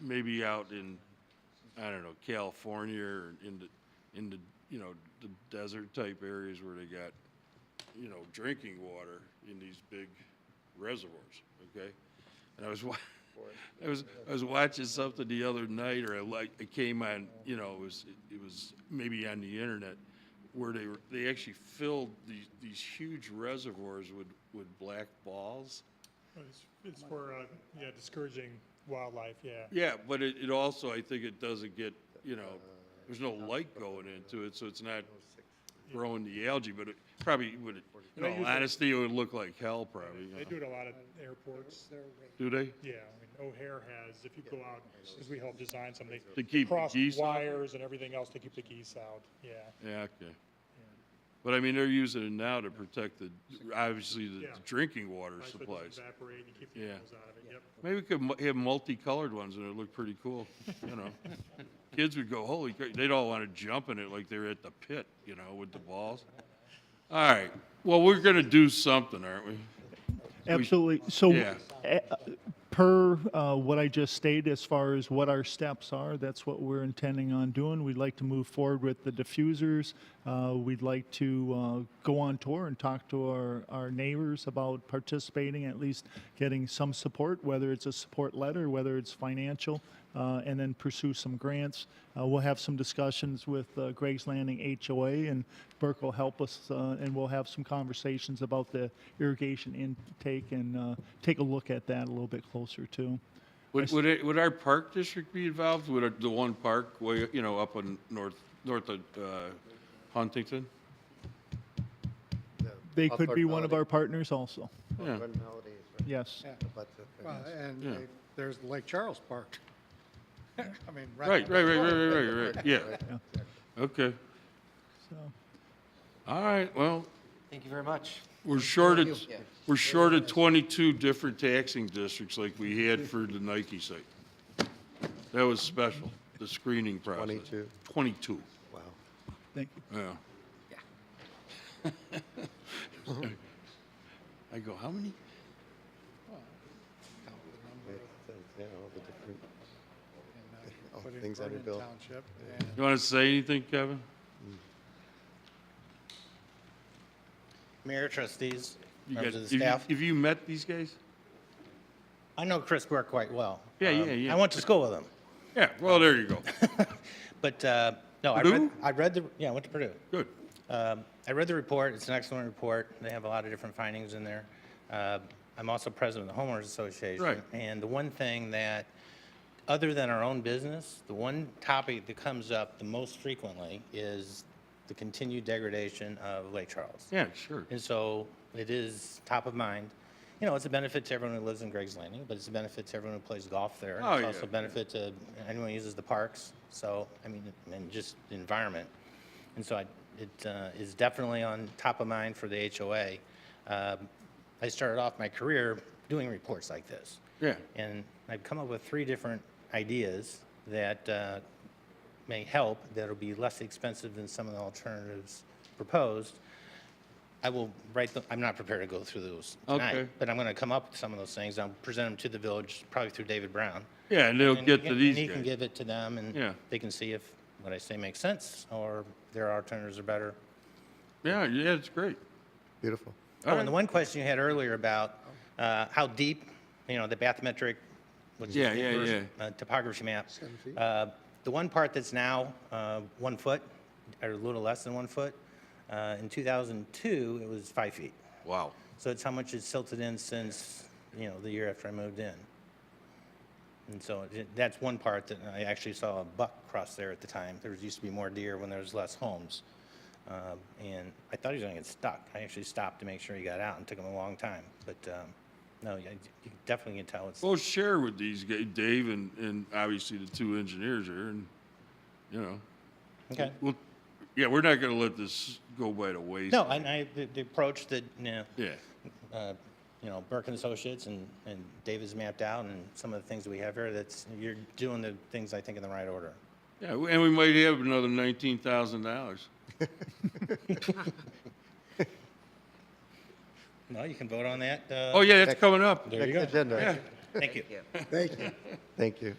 maybe out in, I don't know, California or in the, in the, you know, the desert type areas where they got, you know, drinking water in these big reservoirs, okay? And I was wa- I was, I was watching something the other night, or I like, it came on, you know, it was, it was maybe on the internet, where they were, they actually filled these, these huge reservoirs with, with black balls. It's, it's for, uh, yeah, discouraging wildlife, yeah. Yeah, but it, it also, I think it doesn't get, you know, there's no light going into it, so it's not growing the algae, but it probably would, in They use all it- honesty, it would look like hell probably. you They know. do it at a lot of airports, Do they? yeah, I mean, O'Hare has, if you go out, because we help design some, they. To keep the cross geese out? Wires and everything else to keep the geese out, yeah. Yeah, okay. But I mean, they're using it now to protect the, obviously, the Yeah. drinking water Right, so it doesn't supplies. Evaporate and you keep the Yeah. animals out of it, yep. Maybe we could mu- have multicolored ones and it'd look pretty cool, you know? Kids would go, holy crap, they'd all want to jump in it like they're at the pit, you know, with the balls. All right, well, we're going to do something, aren't we? Absolutely. So, Yeah. eh, per uh, what I just stated, as far as what our steps are, that's what we're intending on doing. We'd like to move forward with the diffusers. Uh, We'd like to uh, go on tour and talk to our, our neighbors about participating, at least getting some support, whether it's a support letter, whether it's financial, uh, and then pursue some grants. Uh, We'll have some discussions with uh, Greg's Landing HOA, and Burke will help us, uh, and we'll have some conversations about the irrigation intake and uh, take a look at that a little bit closer, too. Would, would it, would our park district be involved? Would it- the one park way, you know, up on north, north of, uh, Huntington? They could be one of our partners also, Yeah, yes. Well, and Yeah. they- there's Lake Charles Park. I mean, right, right, right. right, right, right, right, right, yeah. Okay, So- all right, well, Thank you very much. we're short of, you. Yeah. we're short of twenty-two different taxing districts like we had for the Nike site. That was special, the screening process. 22. Twenty-two, Wow. Thank you. yeah. I go, how many? uh, Oh, things that are built. Township, and You wanna say anything, Kevin? Mayor, trustees, You members got- of have the you- staff. Have you met these guys? I know Chris Burke quite well. Yeah, yeah, Um, yeah. I went to school with him. Yeah, well, there you go. But, uh, no, I Purdue? read, I read the, yeah, I went to Purdue. Good. Um, I read the report. It's an excellent report. They have a lot of different findings in there. Uh, I'm also president of the homeowners association. Right. And the one thing that, other than our own business, the one topic that comes up the most frequently is the continued degradation of Lake Charles. Yeah, sure. And so it is top of mind. You know, it's a benefit to everyone who lives in Greg's Landing, but it's a benefit to everyone who plays golf there. and Oh, It's yeah, also a benefit to anyone who uses the parks. So, I mean, and just the environment. And so I, it uh, is definitely on top of mind for the HOA. Um, I started off my career doing reports like this. Yeah. And I've come up with three different ideas that uh, may help, that'll be less expensive than some of the alternatives proposed. I will write them, I'm not prepared to go through those tonight, Okay. but I'm going to come up with some of those things. I'll present them to the village, probably through David Brown. Yeah, and they'll And get to and these he can guys. give it to them, Yeah. and they can see if what I say makes sense, or their alternatives are better. Yeah, yeah, it's great. Beautiful. Oh, and the one question you had earlier about uh, how deep, you know, the bathymetric, what's Yeah, it, yeah, versus- yeah. uh, topography map. feet. Uh, The one part that's now uh, one foot, or a little less than one foot, uh, in 2002, it was five feet. Wow. So it's how much it's silted in since, you know, the year after I moved in. And so it- that's one part that I actually saw a buck cross there at the time. There was- used to be more deer when there was less homes. Um, And I thought he was going to get stuck. I actually stopped to make sure he got out and took him a long time. But um, no, yeah, you definitely can tell it's, Well, share with these guys, Dave and, and obviously the two engineers here and, you know. okay. Well, yeah, we're not gonna let this go by the wayside. No, and I, the- the approach that, you know, Yeah, uh, you know, Burke and Associates and, and David's mapped out and some of the things that we have here, that's, you're doing the things, I think, in the right order. yeah, and we might have another nineteen thousand dollars. No, you can vote on that. uh, Oh, yeah, that's coming up. There you go. Agenda. Yeah, Thank you. Thank you. Thank you.